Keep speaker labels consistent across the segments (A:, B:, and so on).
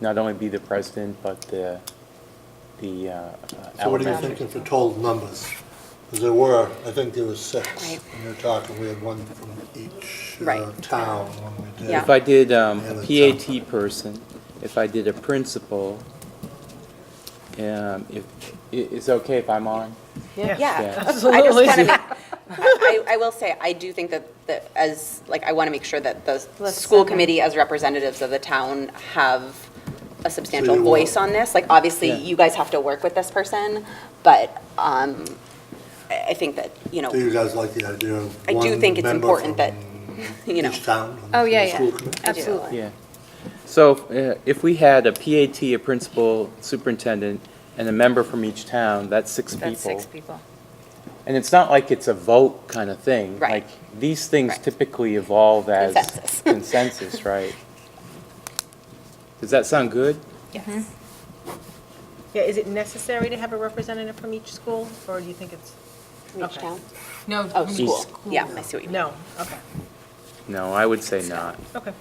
A: not only be the president, but the, the uh, uh,
B: So what are you
A: allocation.
B: thinking for total numbers? Because there were, I think there was six.
C: Right.
B: When you're talking, we had one from each uh,
C: Right.
B: town when we did.
C: Yeah.
A: If I did um,
B: Yeah,
A: a
B: that's
A: PAT person, if I did a principal, um, if, i- it's okay if I'm on? Yeah.
C: Yeah. I just want to make, I, I I will say, I do think that, that as, like, I want to make sure that the
D: Let's
C: school
D: send them.
C: committee as representatives of the town have a substantial
B: you
C: voice
B: want-
C: on this. Like, obviously,
A: Yeah.
C: you guys have to work with this person, but, um, I, I think that, you know,
B: Do you guys like the idea of
C: I do
B: one
C: think it's
B: member
C: important that,
B: from
C: you know.
B: Each town? on
D: Oh,
B: the
D: yeah, yeah,
B: school committee?
D: absolutely.
A: Yeah. So uh, if we had a PAT, a principal, superintendent, and a member from each town, that's six people.
D: That's six people.
A: And it's not like it's a vote kind of thing.
C: Right.
A: Like, these things
C: Right.
A: typically evolve as.
C: Consensus.
A: consensus, right. Does that sound good?
D: Yes.
E: Yeah, is it necessary to have a representative from each school, or do you think it's,
C: from each
E: Okay.
C: town.
F: No.
C: Oh,
F: from
C: school,
F: each
C: yeah, I see what you mean.
E: no, okay,
A: No, I would say not.
E: okay.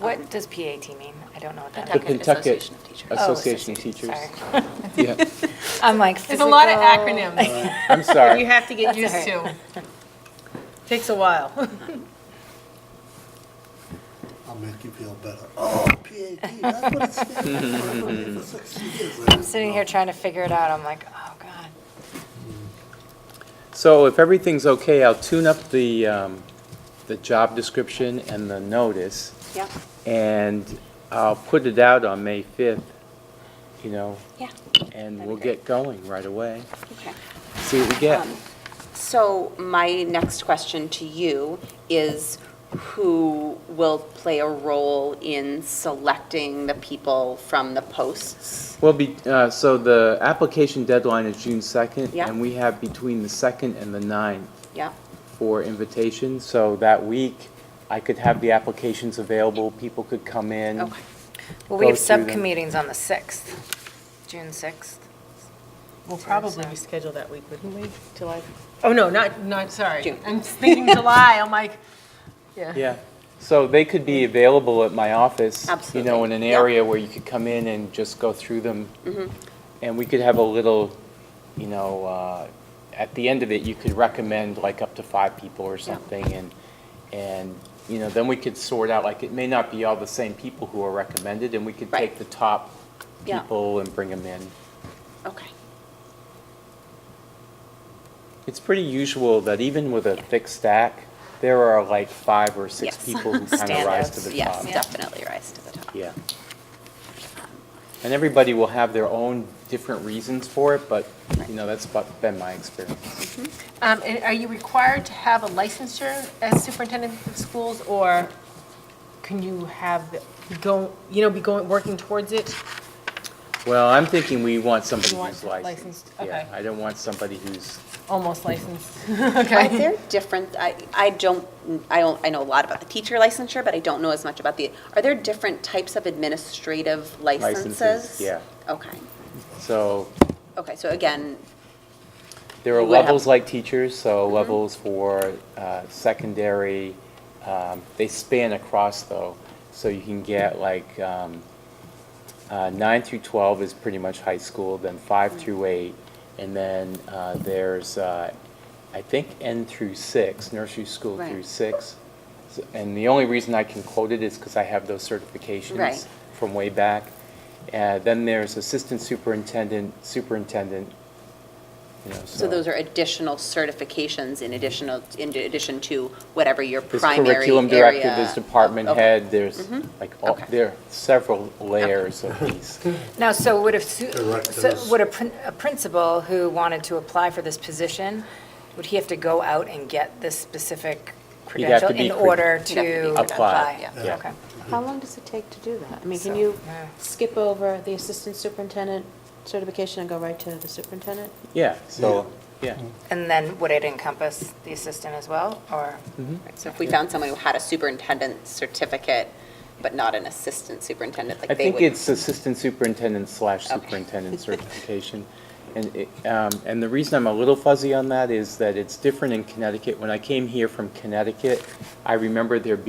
D: What does PAT mean? I don't know what that
A: The
D: means.
F: Pawtucket
A: Pawtucket
F: Association of Teachers.
A: Association
D: Oh,
A: of Teachers.
D: Sorry.
A: Yeah,
D: I'm like oh. physical.
F: There's a lot of acronyms
A: I'm
E: You
A: sorry.
E: have to get
F: get
E: used
F: used
E: to,
F: to.
E: takes a while.
B: I'll make you feel better. Oh, PAT, that's what it stands for. For six years, I
D: I'm
B: didn't
D: sitting
B: know.
D: here trying to figure it out. I'm like, oh, God.
A: So if everything's okay, I'll tune up the, um, the job description and the notice,
C: Yeah,
A: and I'll put it out on May 5th, you know,
C: yeah,
A: and
C: That'd
A: we'll
C: be great.
A: get going right away.
C: okay.
A: See what we get.
C: Um, So my next question to you is, who will play a role in selecting the people from the posts?
A: Well, be, uh, so the application deadline is June 2nd.
C: Yeah.
A: And we have between the 2nd and the 9th
C: Yeah,
A: for invitations. So that week, I could have the applications available, people could come in.
C: okay.
D: Well, we
A: Go
D: have
A: through them.
D: subcommittees on the 6th, June 6th.
E: We'll
D: probably
E: probably reschedule that week, wouldn't we? July? Oh, no, not, not, sorry.
C: June.
E: I'm thinking July, I'm like, yeah.
A: Yeah, so they could be available at my office. You know,
C: Absolutely,
A: in an
C: yeah. Mm-hmm.
A: area where you could come in and just go through them. And we could have a little, you know, uh, at the end of it, you could recommend like up to five people or something. And, and, you know, then we could sort out, like, it may not be all the same people who are recommended. And we could
C: Right.
A: take the top
C: Yeah.
A: people and bring them in.
C: Okay.
A: It's pretty usual that even with a thick stack, there are like five or six
C: Yes.
A: people who kind of rise to the
C: Standouts,
A: top.
C: Yes, definitely rise to the top.
A: Yeah. And everybody will have their own different reasons for it, but, you know, that's about- been my experience.
E: Um, and are you required to have a licensure as superintendent of schools, or can you have, go, you know, be going, working towards it?
A: Well, I'm thinking we want somebody
E: You want
A: who's licensed.
E: licensed,
A: Yeah,
E: okay.
A: I don't want somebody who's,
E: Almost licensed,
C: Are
E: okay?
C: there different, I, I don't, I don't, I know a lot about the teacher licensure, but I don't know as much about the, are there different types of administrative licenses?
A: Licenses, yeah.
C: Okay,
A: so,
C: okay, so again,
A: there are
C: You would have-
A: levels like teachers, so
C: Mm-hmm.
A: levels for uh, secondary, um, they span across though. So you can get like um, uh, nine through 12 is pretty much high school, then five
C: Mm.
A: through eight, and then uh, there's, uh, I think, N through six, nursery school
C: Right.
A: through six. So- And the only reason I can quote it is because I have those certifications
C: Right.
A: from way back. Uh, Then there's assistant superintendent, superintendent, you know, so.
C: So those are additional certifications in additional, in addition to whatever your
A: There's
C: primary
A: curriculum director,
C: area-
A: there's department
C: Okay. Mm-hmm.
A: head, there's like, all-
C: Okay.
A: there are several layers of these.
D: Now, so would a, su- so
B: Directives.
D: would a prin- a principal who wanted to apply for this position, would he have to go out and get this specific
A: have to
D: credential
A: be
D: in
A: cred-
C: He'd
D: order
C: have to
D: to
C: be
D: apply?
A: credentialed, yeah. Yeah.
D: Okay.
G: How long does it take to do that? I mean, can
D: So-
G: you
D: Yeah.
G: skip over the assistant superintendent certification and go right to the superintendent?
A: Yeah, so, yeah.
D: And then would it encompass the assistant as well, or?
A: Mm-hmm.
C: So if we found someone who had a superintendent certificate, but not an assistant superintendent,
A: I
C: like they
A: think
C: would.
A: it's assistant superintendent slash
C: Okay.
A: superintendent certification. And, it- um, and the reason I'm a little fuzzy on that is that it's different in Connecticut. When I came here from Connecticut, I remember there being